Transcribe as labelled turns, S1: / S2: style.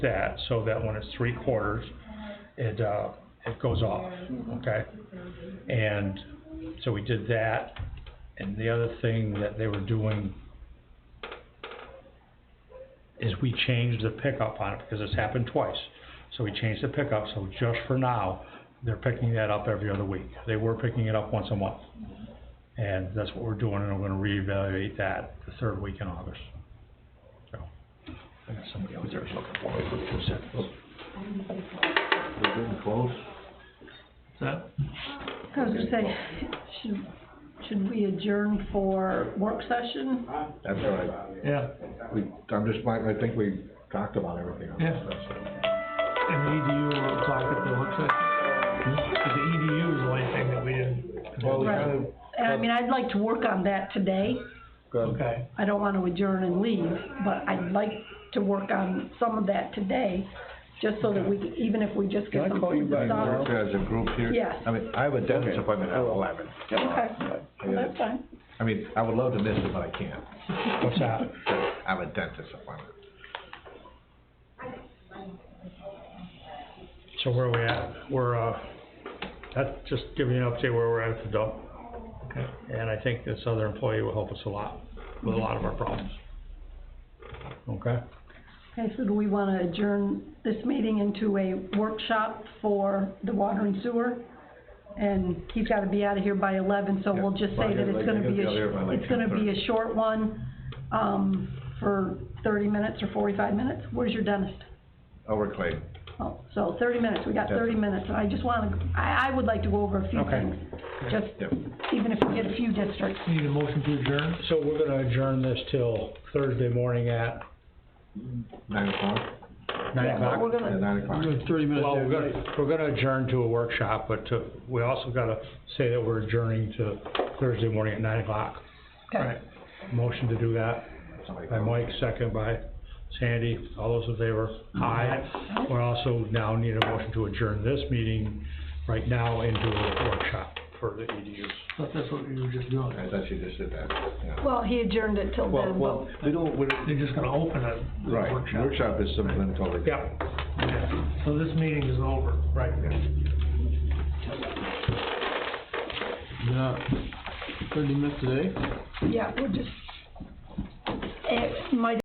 S1: that, so that when it's three quarters, it, uh, it goes off, okay? And so we did that, and the other thing that they were doing is we changed the pickup on it, because it's happened twice. So we changed the pickup, so just for now, they're picking that up every other week. They were picking it up once a month. And that's what we're doing, and I'm gonna reevaluate that the third week in August. So, I got somebody out there looking for me for two seconds.
S2: We're getting close.
S1: That,
S3: I was gonna say, should, should we adjourn for work session?
S2: That's all right.
S1: yeah,
S2: We, I'm just, I think we talked about everything on
S4: Yeah.
S2: this, that's
S4: And the E EDU will apply at the work session. Because the EDU is the only thing that we didn't.
S2: Well, we
S3: Right.
S2: kind of
S3: And I mean, I'd like to work on that today.
S2: got,
S4: Okay,
S3: I don't wanna adjourn and leave, but I'd like to work on some of that today, just so that we, even if we just get
S5: Can I
S3: some
S5: call you
S3: things
S5: back
S3: done.
S2: work as a group here.
S3: Yes.
S2: I mean, I have a dentist
S5: Okay.
S2: appointment at eleven.
S3: Okay,
S2: I gotta-
S3: that's fine.
S2: I mean, I would love to miss it, but I can't.
S1: what's that?
S2: I have a dentist appointment.
S1: So where are we at? We're, uh, that's just giving you an update where we're at at the dump.
S4: okay.
S1: And I think this other employee will help us a lot with a lot of our problems. Okay?
S3: Okay, so do we wanna adjourn this meeting into a workshop for the water and sewer? And he's gotta be out of here by eleven, so we'll just say that it's gonna be
S2: He'll
S3: a,
S2: be out here by like
S3: it's gonna be
S2: 10:30.
S3: a short one, um, for thirty minutes or forty-five minutes. Where's your dentist?
S2: Over Clay.
S3: Oh, so thirty minutes, we got thirty minutes, and I just wanna, I, I would like to go over a few
S1: Okay.
S3: things. Just,
S2: Yep.
S3: even if we get a few districts,
S4: Need a motion to adjourn?
S1: So we're gonna adjourn this till Thursday morning at
S2: Nine o'clock?
S1: nine o'clock?
S3: we're
S2: Yeah,
S3: gonna,
S2: nine o'clock.
S4: Thirty minutes.
S1: Well, we're gonna, we're gonna adjourn to a workshop, but to, we also gotta say that we're adjourning to Thursday morning at nine o'clock.
S3: okay,
S1: Motion to do that
S2: Somebody
S1: by
S2: call.
S1: Mike, second by Sandy, all those in favor? Aye. We also now need a motion to adjourn this meeting right now into a workshop for the EDUs.
S4: Thought that's what you were just doing.
S2: I thought you just did that, yeah.
S3: well, he adjourned it till
S2: Well,
S3: then, but,
S2: well, we don't, we don't,
S4: They're just gonna open a
S2: right,
S4: workshop.
S2: workshop is something totally.
S1: Yep.
S4: Yeah. So this meeting is over.
S1: Right.
S5: Yeah, thirty minutes today.
S3: yeah, we're just, it might